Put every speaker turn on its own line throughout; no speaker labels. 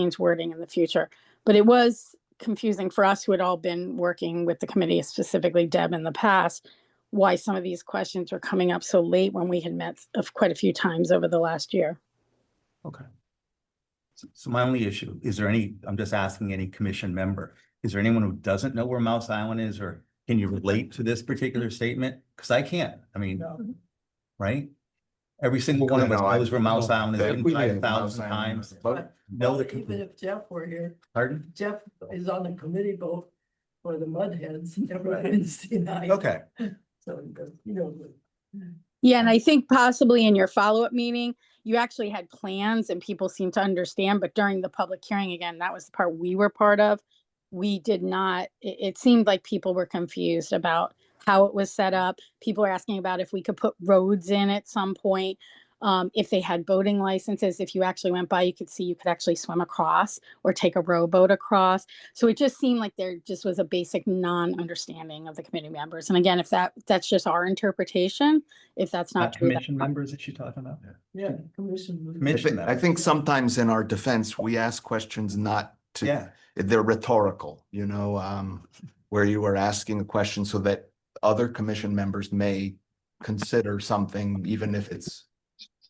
change wording in the future. But it was confusing for us who had all been working with the committee, specifically Deb in the past, why some of these questions were coming up so late when we had met of quite a few times over the last year.
Okay. So- So my only issue, is there any, I'm just asking any commission member, is there anyone who doesn't know where Mouse Island is or can you relate to this particular statement? Cause I can't, I mean, right? Every single one of us
No, I-
knows where Mouse Island
I
is
think
been
we
five
did Mouse
thousand
Island.
times.
But-
Know the,
Well, Even
com-
if Jeff were here,
pardon?
Jeff is on the committee boat for the mudheads every Wednesday night.
Okay,
So, he goes, you know,
Yeah, and I think possibly in your follow-up meeting, you actually had plans and people seemed to understand, but during the public hearing, again, that was the part we were part of. We did not, it, it seemed like people were confused about how it was set up. People were asking about if we could put roads in at some point. Um, if they had boating licenses, if you actually went by, you could see you could actually swim across or take a rowboat across. So it just seemed like there just was a basic non-understanding of the committee members. And again, if that, that's just our interpretation, if that's not
Not
true. that-
commission members that you're talking about?
yeah, commission. would-
I
Commission-
thi- I think sometimes in our defense, we ask questions not to,
yeah,
they're rhetorical, you know, um, where you are asking a question so that other commission members may consider something, even if it's,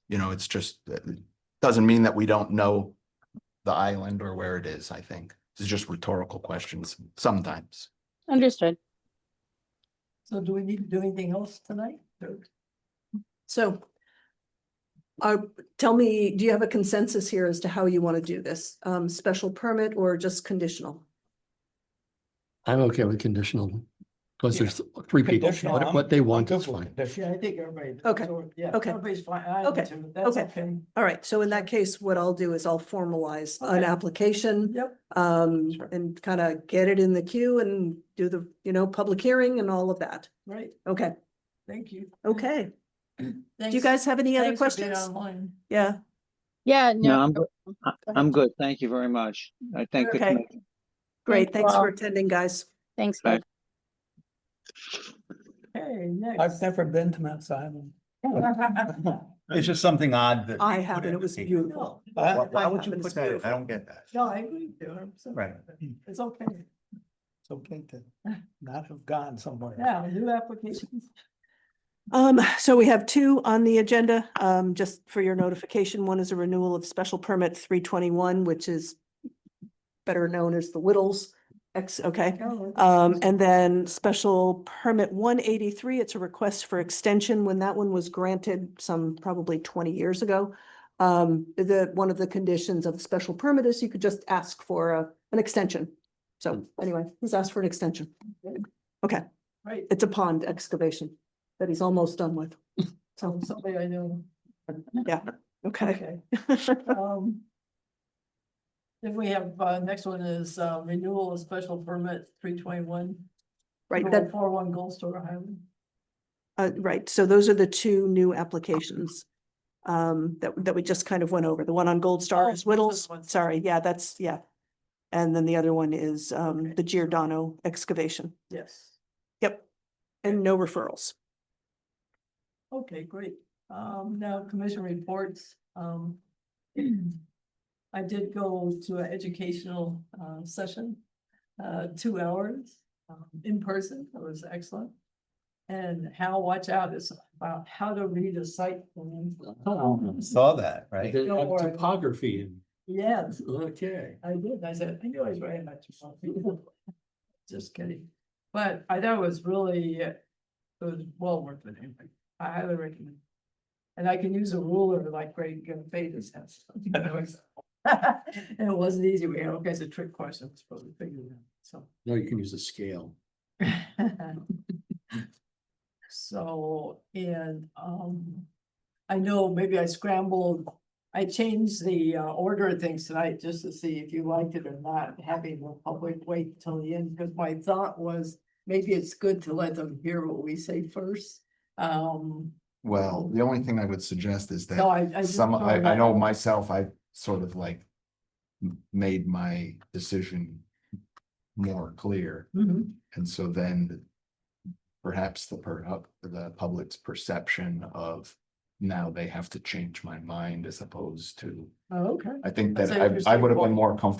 you know, it's just, it doesn't mean that we don't know the island or where it is, I think. It's just rhetorical questions sometimes.
Understood.
So do we need to do anything else tonight? Or-
So uh, tell me, do you have a consensus here as to how you want to do this? Um, special permit or just conditional?
I'm okay with conditional, because
Yeah.
there's three people,
Conditional,
what,
I'm-
what they
I'm
want
good
is
with
fine.
condition.
Yeah, I think everybody.
Okay,
so, Yeah.
okay,
Everybody's fine. I am
okay,
too. That's
okay. All right, so in that case, what I'll do is I'll formalize an
Okay.
application
Yep,
um
Sure.
and kind of get it in the queue and do the, you know, public hearing and all of that.
right.
Okay,
Thank you.
okay. Do you
Thanks-
guys have any other
thanks for being
questions?
Online.
Yeah,
Yeah,
No,
no,
I'm, go- I-
ahead.
I'm good. Thank you very much. I thank the
Okay.
committee.
great.
you
Thanks
all.
for attending, guys.
thanks.
Bye.
Liz.
Hey, next.
I've never been to Mount Sinai.
it's just something odd that. you
I
put
have, and
in
it was
the-
beautiful.
No,
Why
But
why would you
It's
put that, in? I
beautiful.
don't get that.
no, I agree with you. I'm sorry.
Right.
It's okay.
it's okay to not have gone somewhere.
Yeah, new applications.
Um, so we have two on the agenda, um, just for your notification. One is a renewal of special permit three twenty-one, which is better known as the Whittles. X, okay.
Oh,
Um, and then special permit one eighty-three, it's a request for extension. When that one was granted some probably twenty years ago. Um, the, one of the conditions of the special permit is you could just ask for a, an extension. So anyway, he's asked for an extension.
Right.
It's a pond excavation that he's almost done with. So,
Somebody I know.
okay.
Okay. Um. Then we have, uh, next one is, uh, renewal of special permit three twenty-one.
Right, that,
Four one Gold Store Highway.
Uh, right, so those are the two new applications. Um, that, that we just kind of went over. The one on Gold Star
Oh,
is
those
Whittles,
ones.
sorry, yeah, that's, yeah. And then the other one is, um, the Giordano excavation.
Yes.
Yep. And no referrals.
Okay, great. Um, now commission reports, um. I did go to an educational, uh, session, uh, two hours, um, in person. It was excellent. And Hal Watch Out is about how to read a site plan.
Saw that, right?
Don't have worry.
topography and,
Yes,
okay.
I did, I said, I knew I was right about you. Just kidding, but I thought it was really, uh, it was well worth it, anyway. I highly recommend. And I can use a ruler like Greg Fader's has. And it wasn't easy, we had all kinds of trick questions, but we figured it out, so.
No, you can use a scale.
So, and, um, I know maybe I scrambled, I changed the uh, order of things tonight just to see if you liked it or not, having the public wait till the end, because my thought was maybe it's good to let them hear what we say first. Um,
Well, the only thing I would suggest is that.
no, I, I. just
Some, I,
thought
I know
that-
myself, I sort of like m- made my decision more clear,
Mhm.
and so then perhaps the per, uh, the public's perception of now they have to change my mind as opposed to,
Oh, okay.
I think that
So
I,
you're
I would have
saying-
been more comfortable